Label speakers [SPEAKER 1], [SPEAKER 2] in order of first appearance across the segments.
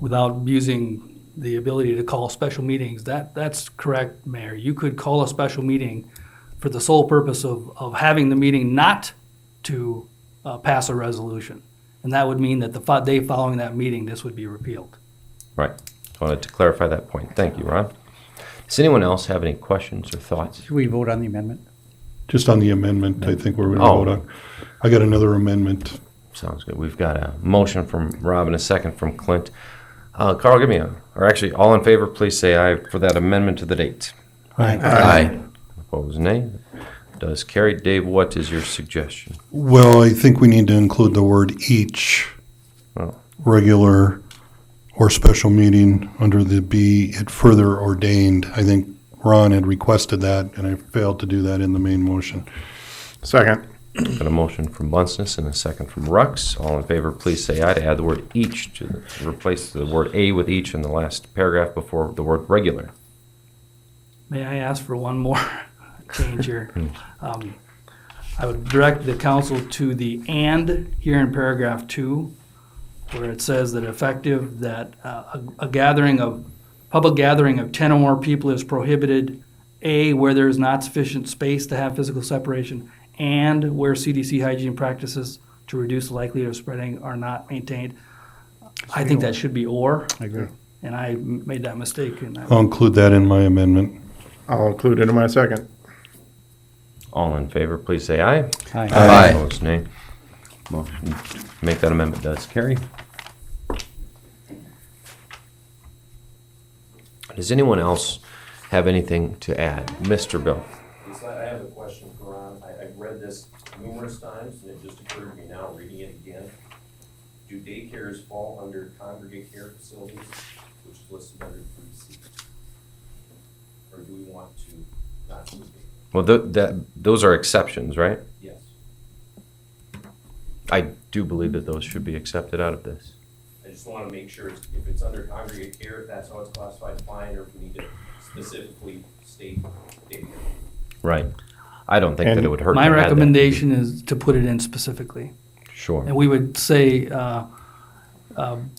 [SPEAKER 1] without using the ability to call special meetings, that, that's correct, Mayor. You could call a special meeting for the sole purpose of, of having the meeting not to uh, pass a resolution. And that would mean that the fo- day following that meeting, this would be repealed.
[SPEAKER 2] Right. I wanted to clarify that point. Thank you, Ron. Does anyone else have any questions or thoughts?
[SPEAKER 3] Should we vote on the amendment?
[SPEAKER 4] Just on the amendment, I think we're going to
[SPEAKER 2] Oh.
[SPEAKER 4] vote on. I got another amendment.
[SPEAKER 2] Sounds good. We've got a motion from Rob and a second from Clint. Uh, Carl, give me a, or actually, all in favor, please say aye for that amendment to the date. Aye. Opposed, nay. Does carry. Dave, what is your suggestion?
[SPEAKER 4] Well, I think we need to include the word each
[SPEAKER 2] Oh.
[SPEAKER 4] regular or special meeting under the B, it further ordained. I think Ron had requested that, and I failed to do that in the main motion.
[SPEAKER 5] Second.
[SPEAKER 2] Got a motion from Bunceness and a second from Rux. All in favor, please say aye to add the word each to, the- to replace the word a with each in the last paragraph before the word regular.
[SPEAKER 1] May I ask for one more change here? Um, I would direct the council to the and here in paragraph two, where it says that effective, that uh, a a gathering of, public gathering of ten or more people is prohibited, A, where there is not sufficient space to have physical separation, and where CDC hygiene practices to reduce the likelihood of spreading are not maintained. I think that should be or,
[SPEAKER 3] I agree.
[SPEAKER 1] and I m- made that mistake, and I
[SPEAKER 4] I'll include that in my amendment.
[SPEAKER 5] I'll include it in my second.
[SPEAKER 2] All in favor, please say aye.
[SPEAKER 3] Aye.
[SPEAKER 2] Opposed, nay. Motion- Make that amendment does carry. Does anyone else have anything to add? Mr. Bill?
[SPEAKER 6] Lisa, I have a question for Ron. I, I've read this numerous times, and it just occurred to me now, reading it again. Do daycares fall under congregate care facilities, which is listed under three C? Or do we want to not use it?
[SPEAKER 2] Well, tho- that, those are exceptions, right?
[SPEAKER 6] Yes,
[SPEAKER 2] I do believe that those should be accepted out of this.
[SPEAKER 6] I just wanna make sure it's- if it's under congregate care, if that's how it's classified, fine, or if we need to specifically state daycare.
[SPEAKER 2] Right. I don't think that it
[SPEAKER 5] And
[SPEAKER 2] would hurt.
[SPEAKER 1] My
[SPEAKER 2] to add that.
[SPEAKER 1] recommendation is to put it in specifically.
[SPEAKER 2] Sure.
[SPEAKER 1] And we would say, uh, um,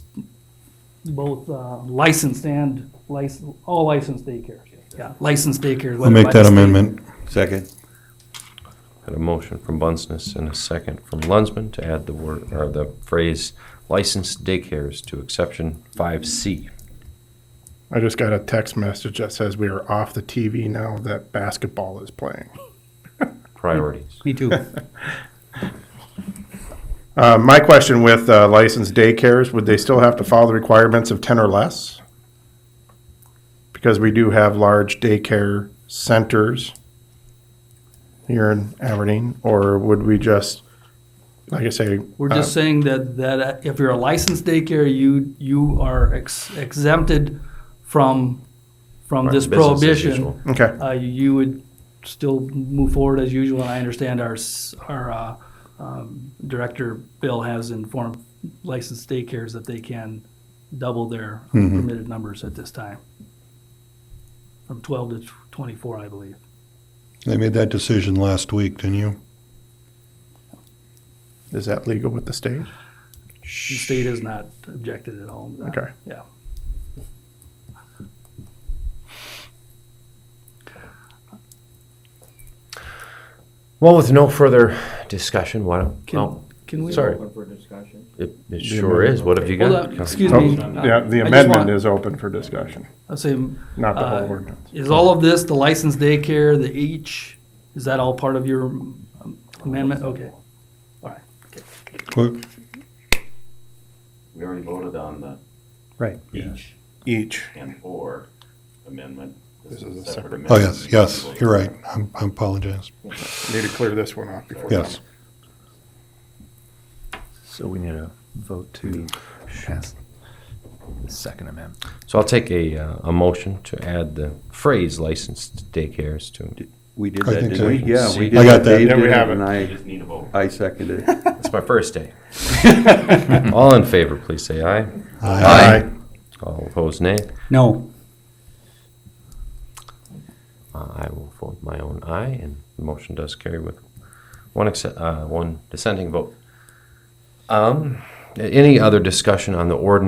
[SPEAKER 1] both uh, licensed and license, all licensed daycare. Yeah, licensed daycare.
[SPEAKER 4] I'll make that amendment.
[SPEAKER 7] Second.
[SPEAKER 2] Got a motion from Bunceness and a second from Lunsman to add the word, or the phrase licensed daycares to exception five C.
[SPEAKER 5] I just got a text message that says we are off the TV now that basketball is playing.
[SPEAKER 2] Priorities.
[SPEAKER 3] Me too.
[SPEAKER 5] Uh, my question with uh, licensed daycares, would they still have to follow the requirements of 10 or less? Because we do have large daycare centers here in Aberdeen, or would we just, like I say,
[SPEAKER 1] We're just saying that, that if you're a licensed daycare, you, you are ex- exempted from, from
[SPEAKER 2] Right,
[SPEAKER 1] this
[SPEAKER 2] business as
[SPEAKER 1] prohibition.
[SPEAKER 2] usual.
[SPEAKER 5] okay.
[SPEAKER 1] uh, you would still move forward as usual, and I understand our, s- our uh, um, director, Bill, has informed licensed daycares that they can double their permitted numbers at this time, from 12 to tw- 24, I believe.
[SPEAKER 4] They made that decision last week, didn't you?
[SPEAKER 5] Is that legal with the state?
[SPEAKER 1] The state has not objected at all. Uh, to that.
[SPEAKER 5] Okay.
[SPEAKER 1] Yeah.
[SPEAKER 2] Well, with no further discussion, why don't,
[SPEAKER 1] Can-
[SPEAKER 2] no,
[SPEAKER 1] Can we?
[SPEAKER 2] sorry,
[SPEAKER 7] Open for discussion.
[SPEAKER 2] it, it sure is. What have you
[SPEAKER 1] Hold on,
[SPEAKER 2] got?
[SPEAKER 1] excuse
[SPEAKER 5] Oh,
[SPEAKER 1] me.
[SPEAKER 5] yeah, the
[SPEAKER 1] I just
[SPEAKER 5] amendment
[SPEAKER 1] want-
[SPEAKER 5] is open for discussion,
[SPEAKER 1] I'll say,
[SPEAKER 5] not the
[SPEAKER 1] Uh,
[SPEAKER 5] whole ordinance.
[SPEAKER 1] is all of this, the licensed daycare, the each, is that all part of your um, amendment? Okay. All right.
[SPEAKER 4] What-
[SPEAKER 8] We already voted on the
[SPEAKER 3] Right.
[SPEAKER 8] each
[SPEAKER 5] Each.
[SPEAKER 8] and or amendment. This is a separate amendment.
[SPEAKER 4] Oh, yes, yes, you're right. I'm- I apologize.
[SPEAKER 5] Need to clear this one off before.
[SPEAKER 4] Yes.
[SPEAKER 7] So we need a vote to pass the second amendment.
[SPEAKER 2] So I'll take a, uh, a motion to add the phrase licensed daycares to,
[SPEAKER 9] We did
[SPEAKER 4] I
[SPEAKER 9] that,
[SPEAKER 4] think
[SPEAKER 9] didn't
[SPEAKER 4] so.
[SPEAKER 9] we? Yeah, we did.
[SPEAKER 4] I got that.
[SPEAKER 9] Dave
[SPEAKER 5] Yeah, we
[SPEAKER 9] did
[SPEAKER 5] have it.
[SPEAKER 9] And
[SPEAKER 8] You
[SPEAKER 9] I,
[SPEAKER 8] just need a vote.
[SPEAKER 9] I seconded it.
[SPEAKER 2] it's my first day. All in favor, please say aye.
[SPEAKER 5] Aye.
[SPEAKER 2] All opposed, nay.
[SPEAKER 3] No,
[SPEAKER 2] Uh, I will vote my own aye, and the motion does carry with one exce- uh, one dissenting vote. Um, a- any other discussion on the ordinance